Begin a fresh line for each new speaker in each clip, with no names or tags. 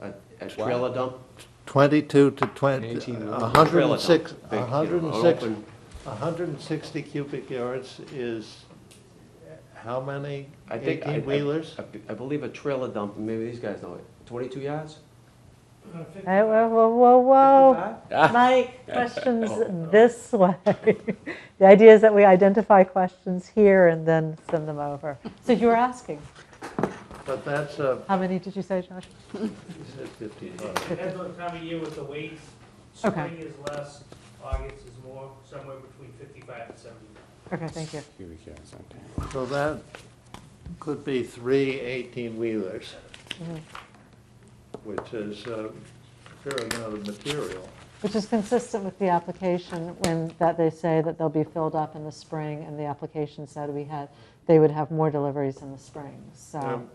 a trailer dump,
22 to 20,
Eighteen million.
106,
Trailer dump, big, you know,
106,
open.
160 cubic yards is how many
I think. I- I-
18-wheelers?
I- I believe a trailer dump, maybe these guys know it, twenty-two yards?
Hey, Whoa, whoa, whoa, whoa.
Ah.
My question's this way. The idea is that we identify questions here and then send them over. So you were asking,
But that's a,
how many did you say, Josh?
he said 55.
Depends on the time of year with the weights.
Okay.
Spring is less, August is more, somewhere between 55 and 75.
Okay, thank you.
So that could be three 18-wheelers,
Mm-hmm.
which is a fair amount of material.
Which is consistent with the application when, that they say that they'll be filled up in the spring, and the application said we had, they would have more deliveries in the spring, so.
Um,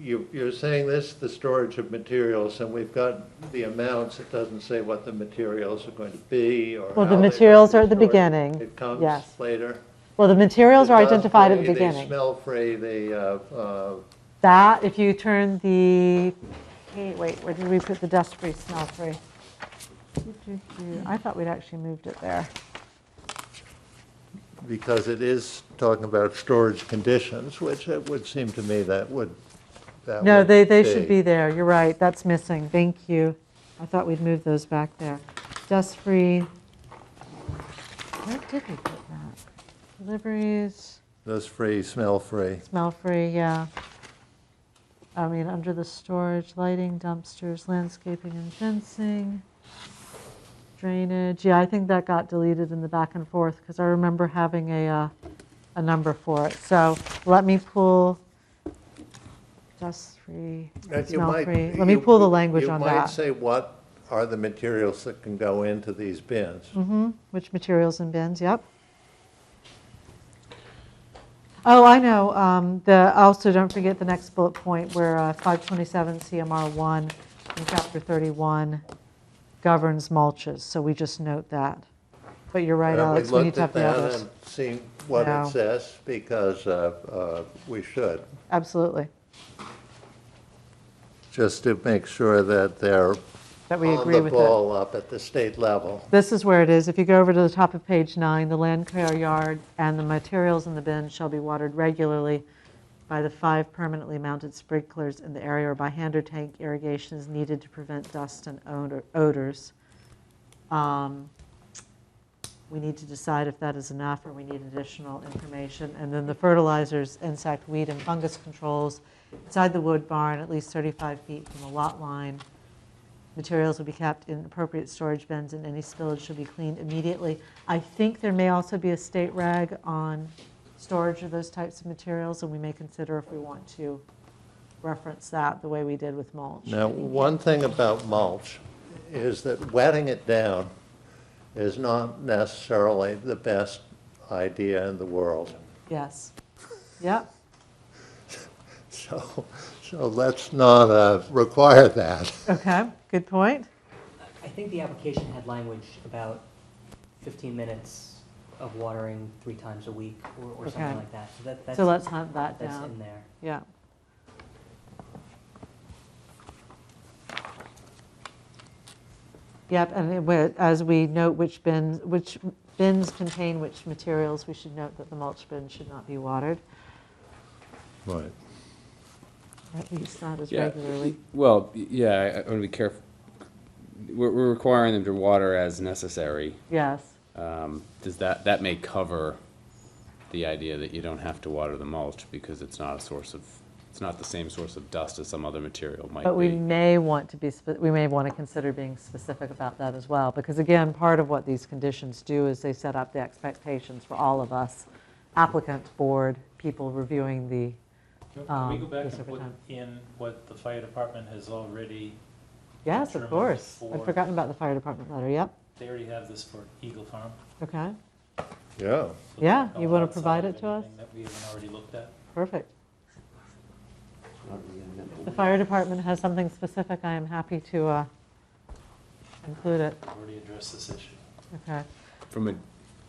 You, you're saying this, the storage of materials, and we've got the amounts, it doesn't say what the materials are going to be or
Well, the
how they
materials
might
are
be
at the
stored.
beginning,
It comes
yes.
later.
Well, the materials are
They're
identified at the
dust-free, They
beginning.
smell free, they, uh, uh,
That, if you turn the, hey, wait, where did we put the dust-free, smell-free? I thought we'd actually moved it there.
because it is talking about storage conditions, which it would seem to me that would, that
No,
would
they, they should be there, you're right, that's missing, thank you. I thought we'd moved those back there. Dust-free, where did we put that? Deliveries,
Dust-free, smell-free.
smell-free, yeah. I mean, under the storage, lighting, dumpsters, landscaping and fencing, drainage, yeah, I think that got deleted in the back and forth, because I remember having a, uh, a number for it. So let me pull dust-free,
That you might-
smell-free, let me
you-
pull the language on
You might
that.
say what are the materials that can go into these bins?
Mm-hmm. Which materials and bins, yep. Oh, I know, um, the, also, don't forget the next bullet point, where uh, 527 CMR 1 in Chapter 31 governs mulches, so we just note that. But you're right,
Uh,
Alex, we need to have the
We looked at that
others.
and seen what
No.
it says, because uh, uh, we should,
Absolutely,
just to make sure that they're
that we
on
agree
the
with it.
ball up at the state level.
This is where it is, if you go over to the top of page nine, the land care yard and the materials in the bin shall be watered regularly by the five permanently mounted sprinklers in the area or by hand or tank irrigations needed to prevent dust and odor- odors. Um, We need to decide if that is enough or we need additional information. And then the fertilizers, insect, weed, and fungus controls inside the wood barn, at least 35 feet from the lot line. Materials will be kept in appropriate storage bins and any spillage should be cleaned immediately. I think there may also be a state reg on storage of those types of materials, and we may consider if we want to reference that the way we did with mulch.
Now, one thing about mulch is that wetting it down is not necessarily the best idea in the world.
Yes. Yep,
So, so let's not uh, require that.
okay, good point.
I think the application had language about 15 minutes of watering three times a week or, or
Okay.
something like that. So that,
So
that's,
let's hunt that
that's in
down.
there.
Yeah. Yep, and it wa- as we note which bins, which bins contain which materials, we should note that the mulch bin should not be watered,
Right.
at least not as
Yeah.
regularly.
Well, y- yeah, I, I want to be careful. We're, we're requiring them to water as necessary.
Yes,
Um, does that, that may cover the idea that you don't have to water the mulch because it's not a source of, it's not the same source of dust as some other material might
but we
be.
may want to be, spe- we may want to consider being specific about that as well, because again, part of what these conditions do is they set up the expectations for all of us, applicant, board, people reviewing the
Can we
Um,
go back
yes,
and
over
put
time.
in what the fire department has already,
Yes, of
Determined
course. I'd
for-
forgotten about the fire department letter, yep,
they already have this for Eagle Farm?
okay,
Yeah.
so they're
Yeah,
not
you
going
wanna
outside
provide
of
it to us?
anything That we haven't already looked at?
perfect.
Not really gonna remember.
The fire department has something specific, I am happy to uh, include it,
We've Already addressed this issue?
okay.
From a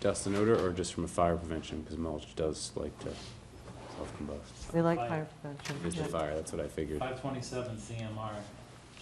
dust and odor or just from a fire prevention, because mulch does like to self-combust.
We like
Fire.
fire
It's a
prevention. yeah.
fire, that's what I figured.
Five twenty-seven CMR